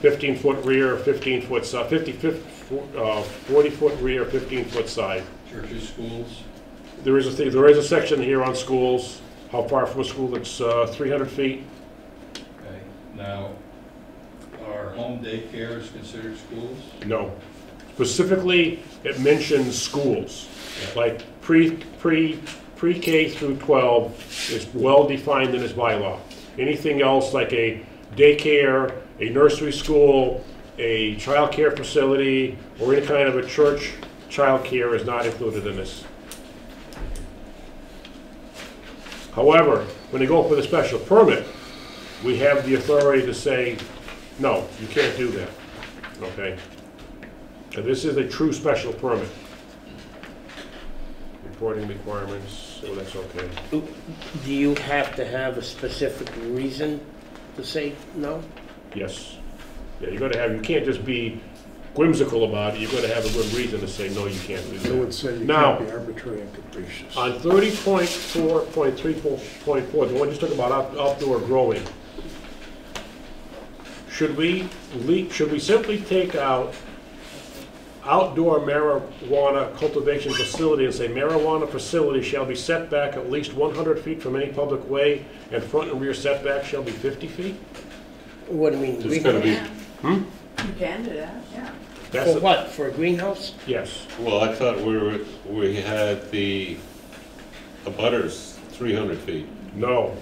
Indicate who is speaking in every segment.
Speaker 1: 15-foot rear, 15-foot side, 50, 40-foot uh, rear, 15-foot side.
Speaker 2: Churches, schools,
Speaker 1: There is a, thing- there is a section here on schools, how far from a school, it's uh, 300 feet.
Speaker 2: okay. Now, are home daycares considered schools?
Speaker 1: No. Specifically, it mentions schools, like pre, pre, pre-K through 12 is well-defined in this bylaw. Anything else like a daycare, a nursery school, a childcare facility, or any kind of a church, childcare is not included in this. However, when they go for the special permit, we have the authority to say, no, you can't do that, okay? And this is a true special permit. Reporting requirements, oh, that's okay.
Speaker 3: Do you have to have a specific reason to say no?
Speaker 1: Yes. Yeah, you gotta have, you can't just be whimsical about it, you have gotta have a good reason to say, no, you can't do
Speaker 4: I
Speaker 1: that.
Speaker 4: would say uh, you
Speaker 1: Now-
Speaker 4: can't be arbitrary and capricious.
Speaker 1: On thirty point four, point three, point four, the one you just talking about out- outdoor growing. Should we le should we simply take out outdoor marijuana cultivation facility and say marijuana facility shall be set back at least one hundred feet from any public way and front and rear setback shall be fifty feet?
Speaker 3: What do you mean?
Speaker 5: There's
Speaker 3: green-
Speaker 5: gotta be,
Speaker 6: Yeah. You can do that, yeah.
Speaker 1: That's
Speaker 3: For
Speaker 1: a-
Speaker 3: what, for a greenhouse?
Speaker 1: Yes,
Speaker 5: well, I thought we were, we had the abutters, three hundred feet.
Speaker 1: no.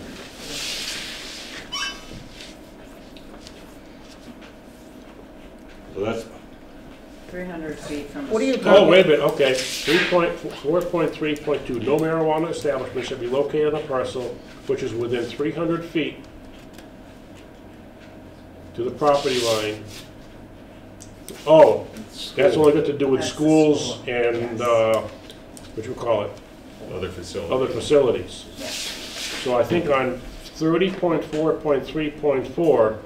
Speaker 5: Well, that's,
Speaker 6: 300 feet from. a
Speaker 3: What are you
Speaker 6: street.
Speaker 1: Oh,
Speaker 3: talking?
Speaker 1: wait a minute, okay. Three point, four point three point two, no marijuana establishment shall be located on a parcel which is within three hundred feet to the property line. Oh, that's only got to do with
Speaker 6: That's the
Speaker 1: schools
Speaker 6: school.
Speaker 1: and,
Speaker 6: Yes.
Speaker 1: uh, what you call it,
Speaker 7: other facility.
Speaker 1: other facilities.
Speaker 6: Yeah.
Speaker 1: So I think on thirty point four point three point four,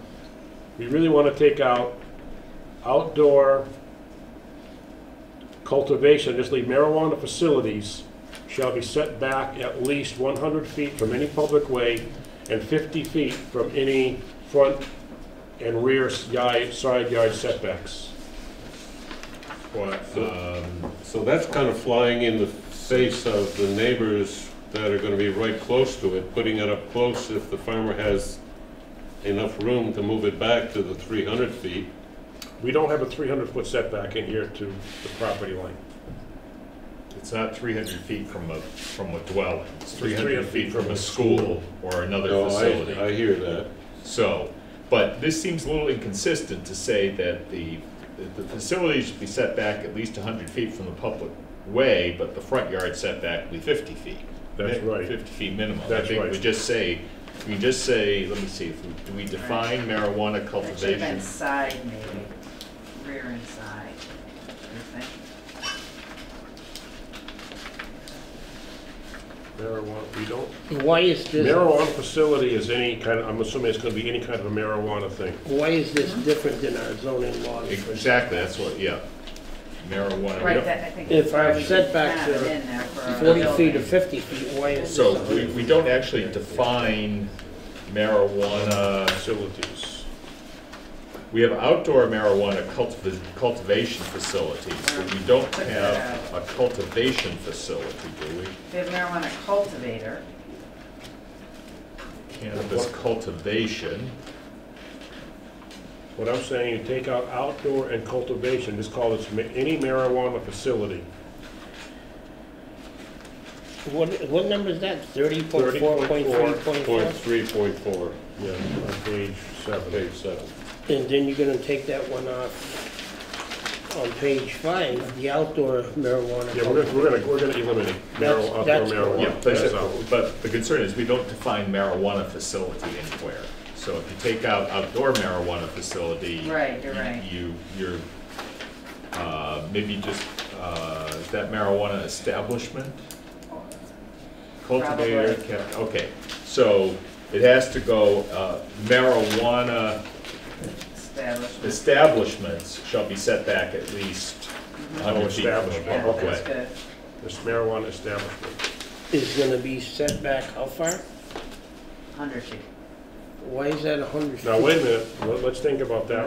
Speaker 1: we really want to take out outdoor cultivation, just leave marijuana facilities shall be set back at least one hundred feet from any public way and fifty feet from any front and rear s- yi- side yard setbacks.
Speaker 7: What, um,
Speaker 5: so that's kind of flying in the face of the neighbors that are gonna be right close to it, putting it up close if the farmer has enough room to move it back to the three hundred feet.
Speaker 1: We don't have a three hundred foot setback in here to the property line.
Speaker 7: it's not three hundred feet from a, from a dwelling, it's three
Speaker 1: 300
Speaker 7: hundred feet from a school or another
Speaker 5: No,
Speaker 7: facility.
Speaker 5: I, I hear that.
Speaker 7: So, but this seems a little inconsistent to say that the, that the facility should be set back at least hundred feet from the public way, but the front yard setback will be fifty feet.
Speaker 1: That's
Speaker 7: Mi-
Speaker 1: right.
Speaker 7: Fifty feet minimum. I
Speaker 1: That's
Speaker 7: think
Speaker 1: right.
Speaker 7: We just say, we just say, let me see, if we- do we define marijuana
Speaker 6: That should have been
Speaker 7: cultivation?
Speaker 6: side maybe, rear and side, you think?
Speaker 1: Marijuana, we don't
Speaker 3: Why is this,
Speaker 1: Marijuana facility is any kind, of I'm assuming it's gonna be any kind of a marijuana thing.
Speaker 3: why is this different than our zoning laws?
Speaker 7: Exactly, that's what, yeah. Marijuana.
Speaker 6: Right, that, I think.
Speaker 3: If our
Speaker 6: we
Speaker 3: setbacks
Speaker 6: have it
Speaker 3: are
Speaker 6: in there for a
Speaker 3: Forty feet or
Speaker 6: building.
Speaker 3: fifty feet, why is
Speaker 7: So we,
Speaker 3: this?
Speaker 7: we don't actually define marijuana,
Speaker 1: Facilities.
Speaker 7: we have outdoor marijuana cultiv- cultivation facilities, but we don't have a cultivation facility, do we?
Speaker 6: We have marijuana cultivator,
Speaker 7: Cannabis cultivation,
Speaker 1: What I'm saying, you take out outdoor and cultivation, just call it ma- any marijuana facility.
Speaker 3: What, what number is that? Thirty point four, point three, point
Speaker 5: Point
Speaker 3: four?
Speaker 5: three, point four,
Speaker 1: Yeah, on page seven.
Speaker 5: page seven.
Speaker 3: And then you're gonna take that one off on page five, the outdoor marijuana.
Speaker 1: Yeah, we're gonna, we're gonna, we're gonna eliminate
Speaker 3: That's-
Speaker 1: marijuana, outdoor
Speaker 3: that's-
Speaker 7: yeah,
Speaker 1: marijuana.
Speaker 7: but
Speaker 1: That's out.
Speaker 7: but the concern is we don't define marijuana facility anywhere. So if you take out outdoor marijuana facility.
Speaker 6: Right, you're right.
Speaker 7: You, you're, uh, maybe just, uh, is that marijuana establishment? Cultivator,
Speaker 6: Probably.
Speaker 7: cap, okay, so it has to go, uh, marijuana
Speaker 6: establishment.
Speaker 7: establishments shall be set back at least
Speaker 1: Oh,
Speaker 7: hundred feet from the
Speaker 1: establishment,
Speaker 6: Yeah,
Speaker 7: public
Speaker 6: that's
Speaker 7: way.
Speaker 6: good.
Speaker 1: This marijuana establishment.
Speaker 3: Is gonna be set back how far?
Speaker 6: 100 feet.
Speaker 3: Why is that a hundred feet?
Speaker 1: Now, wait a minute, let- let's think about that